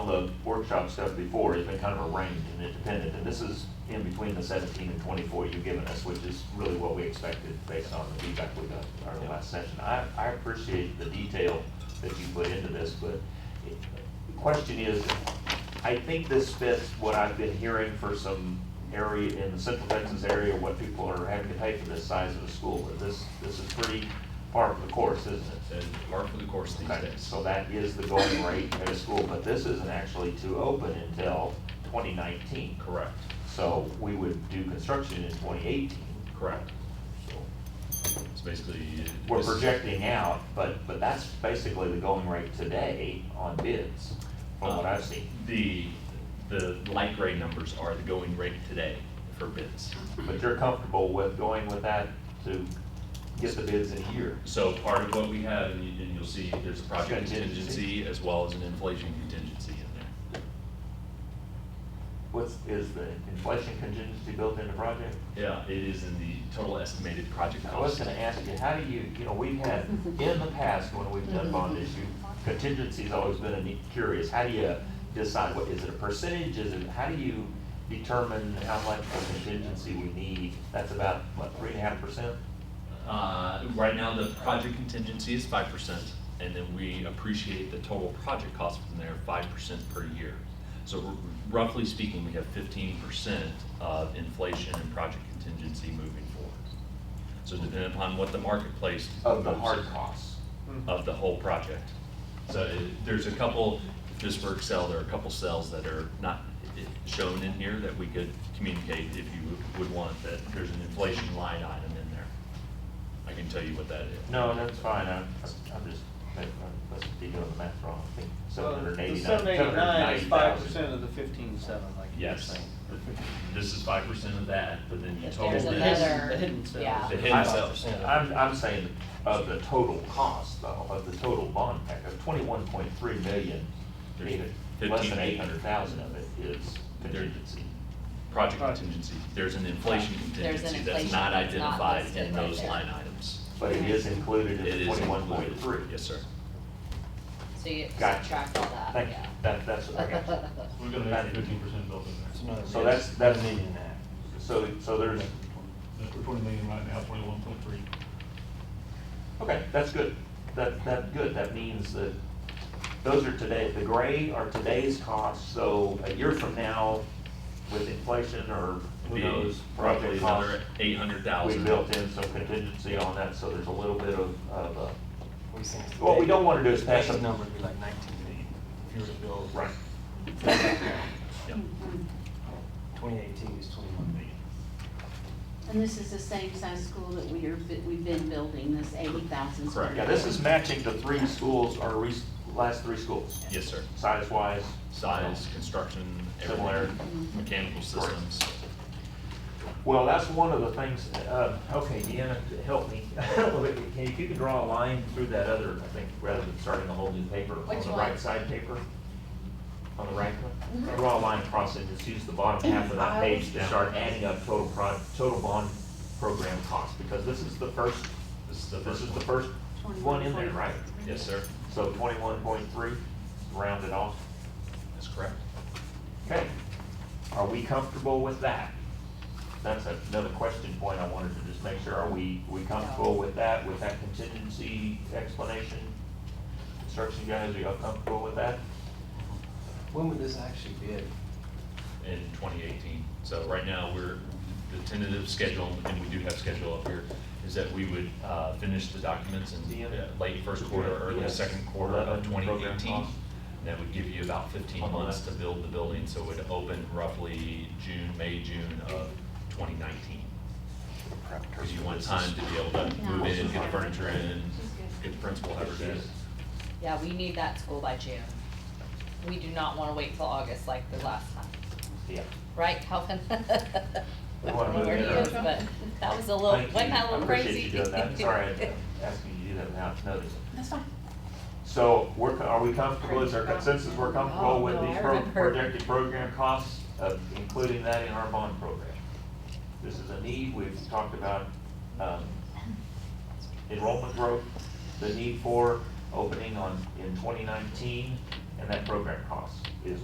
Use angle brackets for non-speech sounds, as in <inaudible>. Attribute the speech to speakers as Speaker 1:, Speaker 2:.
Speaker 1: the workshop stuff before, it's been kind of arranged and independent, and this is in between the seventeen and twenty-four you've given us, which is really what we expected based on the feedback we got in our last session. I, I appreciate the detail that you put into this, but it- the question is, I think this fits what I've been hearing for some area, in the central Texas area, what people are having to pay for this size of a school, but this, this is pretty part of the course, isn't it?
Speaker 2: and mark for the course these
Speaker 1: Okay,
Speaker 2: days.
Speaker 1: so that is the going rate at a school, but this isn't actually to open until 2019.
Speaker 2: Correct,
Speaker 1: So we would do construction in 2018.
Speaker 2: correct.
Speaker 1: So
Speaker 2: It's basically.
Speaker 1: We're
Speaker 2: this is-
Speaker 1: projecting out, but, but that's basically the going rate today on bids, from what I've seen.
Speaker 2: uh, The, the light gray numbers are the going rate today for bids.
Speaker 1: But you're comfortable with going with that to get the bids in a year?
Speaker 2: So part of what we have, and you- and you'll see, there's a project
Speaker 1: Contingency.
Speaker 2: contingency as well as an inflation contingency in there.
Speaker 1: What's, is the inflation contingency built into project?
Speaker 2: Yeah, it is in the total estimated project
Speaker 1: I was
Speaker 2: cost.
Speaker 1: gonna ask you, how do you, you know, we've had, in the past, when we've done bond issue, contingency's always been a neat, curious, how do you decide, what, is it a percentage, is it, how do you determine how much of contingency we need? That's about, what, three and a half percent?
Speaker 2: Uh, right now, the project contingency is five percent, and then we appreciate the total project cost from there, five percent per year. So r- roughly speaking, we have fifteen percent of inflation and project contingency moving forward. So depending upon what the marketplace.
Speaker 1: Of the
Speaker 2: moves
Speaker 1: hard
Speaker 2: is-
Speaker 1: costs.
Speaker 2: Of the whole project. So it- there's a couple, if this were Excel, there are a couple cells that are not i- shown in here that we could communicate if you would- would want, that there's an inflation line item in there. I can tell you what that is.
Speaker 1: No, that's fine, I'm, I'm just, I must be doing the math wrong, I think, seven hundred
Speaker 3: The
Speaker 1: eighty-nine,
Speaker 3: seven
Speaker 1: seven hundred
Speaker 3: eighty-nine is
Speaker 1: ninety
Speaker 3: five
Speaker 1: thousand.
Speaker 3: percent of the fifteen-seven, like you were
Speaker 2: Yes,
Speaker 3: saying.
Speaker 2: this is five percent of that, but then you
Speaker 4: If
Speaker 2: total
Speaker 4: there's
Speaker 3: The
Speaker 2: this.
Speaker 3: hidden-
Speaker 4: another-
Speaker 3: The hidden seven.
Speaker 4: yeah.
Speaker 2: The hidden cells.
Speaker 1: I'm, I'm saying of the total cost though, of the total bond pack, of twenty-one point three million, even less than eight hundred thousand of it is contingency.
Speaker 2: Project contingency, there's an inflation
Speaker 4: There's an
Speaker 2: contingency that's
Speaker 4: inflation
Speaker 2: not
Speaker 4: that's not
Speaker 2: identified
Speaker 4: listed
Speaker 2: in
Speaker 4: right
Speaker 2: those
Speaker 4: there.
Speaker 2: line items.
Speaker 1: But it is included in
Speaker 2: It
Speaker 1: the
Speaker 2: is
Speaker 1: twenty-one point
Speaker 2: included.
Speaker 1: three.
Speaker 2: Yes, sir.
Speaker 4: So you
Speaker 1: Gotcha.
Speaker 4: subtract all that,
Speaker 1: Thank you,
Speaker 4: yeah.
Speaker 1: that, that's, I got you.
Speaker 2: <laughs>
Speaker 4: <laughs>
Speaker 5: We're gonna have fifteen percent built in there.
Speaker 1: So that's, that's, so, so there's,
Speaker 5: That's for twenty million right now, twenty-one point three.
Speaker 1: okay, that's good. That, that, good, that means that those are today, the gray are today's costs, so a year from now with inflation or who
Speaker 2: Be
Speaker 1: knows,
Speaker 2: Probably
Speaker 1: project costs.
Speaker 2: another eight hundred
Speaker 1: We
Speaker 2: thousand.
Speaker 1: built in some contingency on that, so there's a little bit of, of, uh,
Speaker 6: We think it's
Speaker 1: what we don't wanna do is pass
Speaker 6: Today's
Speaker 1: them.
Speaker 6: number would be like nineteen eighty, if you were to build.
Speaker 1: Right.
Speaker 6: Twenty eighteen is twenty-one million.
Speaker 7: And this is the same size school that we are, bu- we've been building, this eighty thousand square.
Speaker 2: Correct.
Speaker 1: Yeah, this is matching the three schools, our re, last three schools,
Speaker 2: Yes, sir.
Speaker 1: size-wise.
Speaker 2: Size, construction,
Speaker 1: Similar.
Speaker 2: everywhere, mechanical systems.
Speaker 1: Well, that's one of the things, uh, okay, Deanna, help me. <laughs> Can, if you could draw a line through that other, I think, rather than starting a whole new paper, on
Speaker 4: Which
Speaker 1: the
Speaker 4: one? Mm-hmm.
Speaker 1: right side paper? On the right one? Draw a line across it, just use the bottom half of that page to start adding up total pro, total bond program cost, because this is the first,
Speaker 2: This is the
Speaker 1: this
Speaker 2: first
Speaker 1: is the
Speaker 2: one.
Speaker 1: first one in there, right?
Speaker 2: Yes, sir.
Speaker 1: So twenty-one point three, rounded off.
Speaker 2: That's correct.
Speaker 1: Okay, are we comfortable with that? That's another question point I wanted to just make sure, are we, we comfortable with that, with that contingency explanation? Construction guys, are y'all comfortable with that?
Speaker 6: When would this actually bid?
Speaker 2: in twenty eighteen. So right now, we're, the tentative schedule, and we do have schedule up here, is that we would uh, finish the documents in
Speaker 1: Yeah.
Speaker 2: uh, late first quarter, early
Speaker 1: Yes.
Speaker 2: second quarter
Speaker 1: Eleven
Speaker 2: of twenty
Speaker 1: program
Speaker 2: eighteen.
Speaker 1: costs.
Speaker 2: That would give you about fifteen
Speaker 1: On the
Speaker 2: months
Speaker 1: left.
Speaker 2: to build the building, so it would open roughly June, May, June of twenty nineteen. Because you want time to be able to move in, get the furniture in, get the principal, however it is.
Speaker 4: Yeah, we need that school by June. We do not wanna wait till August like the last time,
Speaker 1: Yeah.
Speaker 4: right, Calvin? <laughs>
Speaker 1: We wanna move
Speaker 4: Where he
Speaker 1: in
Speaker 4: is,
Speaker 1: early.
Speaker 4: but that was a little,
Speaker 1: Thank
Speaker 4: wasn't
Speaker 1: you.
Speaker 4: that a little crazy?
Speaker 1: I appreciate you doing
Speaker 4: <laughs>
Speaker 1: that, sorry, I'm asking you to do that without notice.
Speaker 7: That's fine.
Speaker 1: So, we're, co- are we comfortable, is our consensus, we're comfortable
Speaker 4: Oh,
Speaker 1: with
Speaker 4: no,
Speaker 1: these
Speaker 4: I
Speaker 1: pro-
Speaker 4: remember.
Speaker 1: projected program costs, of including that in our bond program? This is a need, we've talked about, um, enrollment growth, the need for opening on, in twenty nineteen, and that program cost is